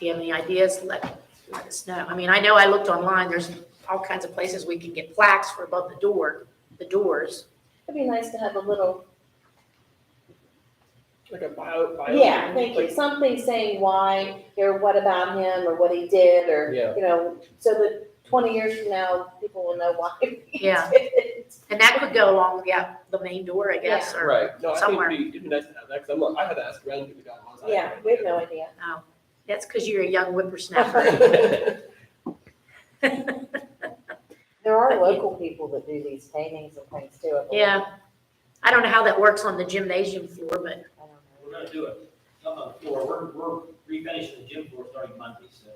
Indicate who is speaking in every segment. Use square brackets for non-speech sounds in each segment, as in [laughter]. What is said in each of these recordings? Speaker 1: you have any ideas, let, let us know. I mean, I know I looked online, there's all kinds of places we can get plaques for above the door, the doors.
Speaker 2: It'd be nice to have a little,
Speaker 3: Like a bio, bio.
Speaker 2: yeah, thank you, something saying why, or what about him, or what he did, or,
Speaker 3: Yeah.
Speaker 2: you know, so that twenty years from now, people will know why. [laughs] he
Speaker 1: Yeah.
Speaker 2: did it.
Speaker 1: And that could go along, yeah, the main door, I guess, or.
Speaker 3: Right, no, I think
Speaker 1: Somewhere.
Speaker 3: it'd be, it'd be nice to have that, i I'm, like- I had to ask around who the guy was. I
Speaker 2: Yeah,
Speaker 3: had
Speaker 2: we have no idea.
Speaker 1: oh, That's because you're a young whippersnapper. [laughs]
Speaker 3: idea.
Speaker 4: There are
Speaker 1: But-
Speaker 4: local people that do these paintings and things too. I believe.
Speaker 1: Yeah. I don't know how that works on the gymnasium floor, but
Speaker 4: I don't know.
Speaker 5: We're gonna do it, some on the floor, we're, we're refinishing the gym floor starting Monday, so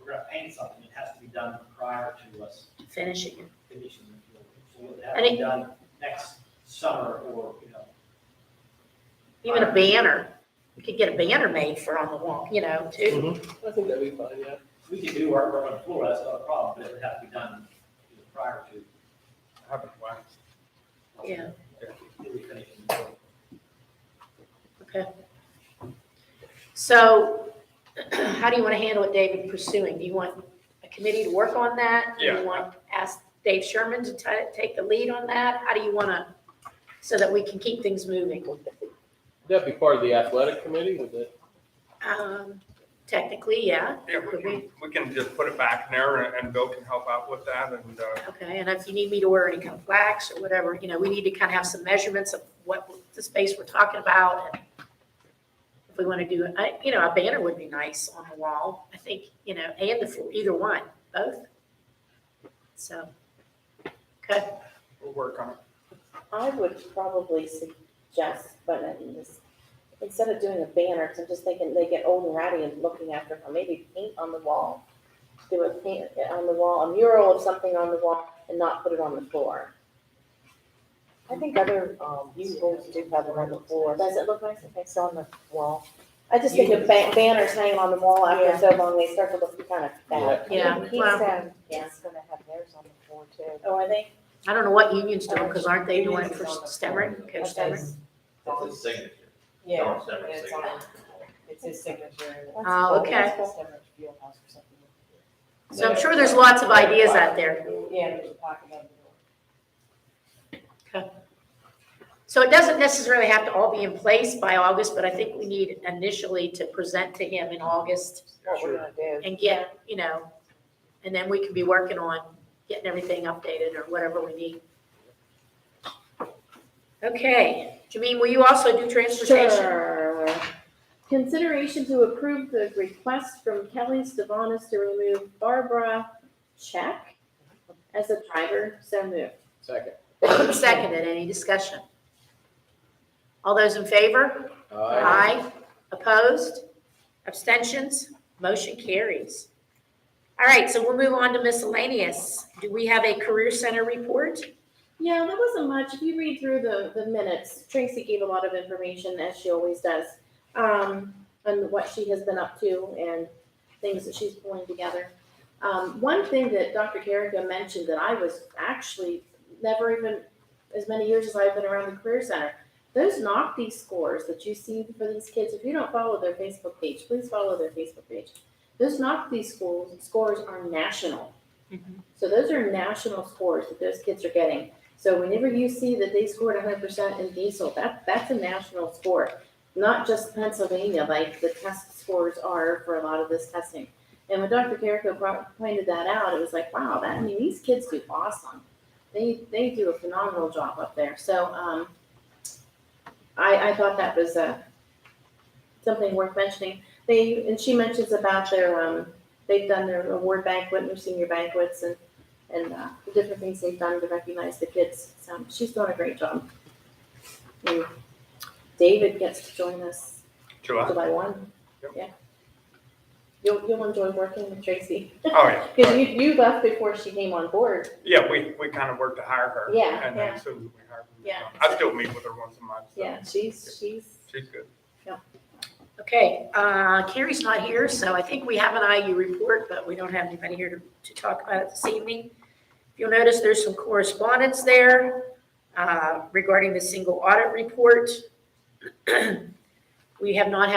Speaker 5: we're gonna paint something, it has to be done prior to us
Speaker 1: finishing it.
Speaker 5: finishing the floor. So we'll have it done next summer or, you know,
Speaker 1: Even a banner, you could get a banner made for on the wall, you know, too.
Speaker 3: [laughs] I think that'd be fine, yeah.
Speaker 5: we can do our work on the floor, that's not a problem, but it would have to be done you know, prior to.
Speaker 1: Yeah.
Speaker 5: Refinishing the floor.
Speaker 1: So [clears throat] how do you want to handle it, David, pursuing? Do you want a committee to work on that? Do
Speaker 6: Yeah.
Speaker 1: you want, ask Dave Sherman to ta- take the lead on that? How do you want to, so that we can keep things moving?
Speaker 3: That'd be part of the athletic committee, would it?
Speaker 1: Um, Technically, yeah,
Speaker 6: Yeah, we can, we can just put it back in there and- and Bill can help out with that and, uh,
Speaker 1: okay. And if you need me to wear any kind of plaques or whatever, you know, we need to kind of have some measurements of what the space we're talking about. and If we want to do, I- you know, a banner would be nice on the wall, I think, you know, and the, floor, either one, both. So, okay.
Speaker 6: we'll work on it.
Speaker 2: I would probably suggest, but I mean, this, instead of doing a banner, 'cause I'm just thinking they get old and ratty and looking after them, maybe paint on the wall. Do a paint eh, on the wall, a mural of something on the wall and not put it on the floor.
Speaker 4: I think other um, schools do have them on the floor.
Speaker 2: Does it look nice? Okay,
Speaker 4: It's on the wall.
Speaker 2: I just think of ba- banners hanging on the wall after so long, they start to look kind of bad.
Speaker 1: Yeah,
Speaker 4: Keystone,
Speaker 1: well-
Speaker 4: It's gonna have theirs on the floor too.
Speaker 2: Oh, are they?
Speaker 1: I don't know what union's doing, because aren't they doing it
Speaker 7: Union's
Speaker 1: for
Speaker 7: is on the
Speaker 1: Stemmer,
Speaker 7: phone.
Speaker 1: Coach Stemmer?
Speaker 7: It's a signature.
Speaker 4: Yeah,
Speaker 7: Don't separate
Speaker 4: it's on, it's his signature.
Speaker 2: That's
Speaker 1: Oh,
Speaker 2: cool.
Speaker 1: okay.
Speaker 2: That's cool.
Speaker 1: So I'm sure there's lots of ideas out there.
Speaker 4: Yeah, there's a pocket on the door.
Speaker 1: So it doesn't necessarily have to all be in place by August, but I think we need initially to present to him in August
Speaker 4: What we're gonna do.
Speaker 1: and get, you know, and then we can be working on getting everything updated or whatever we need. Okay, Jameen, will you also do transportation?
Speaker 2: Sure. Consideration to approve the request from Kelly Stavanis to remove Barbara Check as a driver, so moved.
Speaker 3: Second.
Speaker 1: Seconded, any discussion? All those in favor? Aye. Opposed? Abstentions? Motion carries. All right, so we'll move on to miscellaneous. Do we have a career center report?
Speaker 2: Yeah, that wasn't much. If you read through the, the minutes, Tracy gave a lot of information, as she always does, um, on what she has been up to and things that she's pulling together. Um, one thing that Dr. Carrico mentioned that I was actually never even, as many years as I've been around the Career Center, those NOCD scores that you see for these kids, if you don't follow their Facebook page, please follow their Facebook page. Those NOCD schools, scores are national. So those are national scores that those kids are getting. So whenever you see that they scored hundred percent in diesel, that, that's a national score, not just Pennsylvania, like the test scores are for a lot of this testing. And when Dr. Carrico brought, pointed that out, it was like, wow, that, I mean, these kids do awesome. They, they do a phenomenal job up there. So, um, I, I thought that was, uh, something worth mentioning. They, and she mentions about their, um, they've done their award banquet, and their senior banquets and and uh, the different things they've done to recognize the kids. So she's doing a great job. And David gets to join us
Speaker 6: July?
Speaker 2: July one.
Speaker 6: Yep.
Speaker 2: Yeah. You'll, you'll enjoy working with Tracy. [laughs]
Speaker 6: Oh, yeah.
Speaker 2: Because you, you left before she came on board.
Speaker 6: Yeah, we, we kind of worked to hire her.
Speaker 2: Yeah,
Speaker 6: And then
Speaker 2: yeah.
Speaker 6: as soon as we hired her.
Speaker 2: Yeah.
Speaker 6: I still meet with her once a month. so
Speaker 2: Yeah, she's, she's,
Speaker 6: She's good.
Speaker 1: Okay, uh, Carrie's not here, so I think we have an IU report, but we don't have anybody here to, to talk about it this evening. If you'll notice, there's some correspondence there uh, regarding the single audit report. [clears throat] We have not had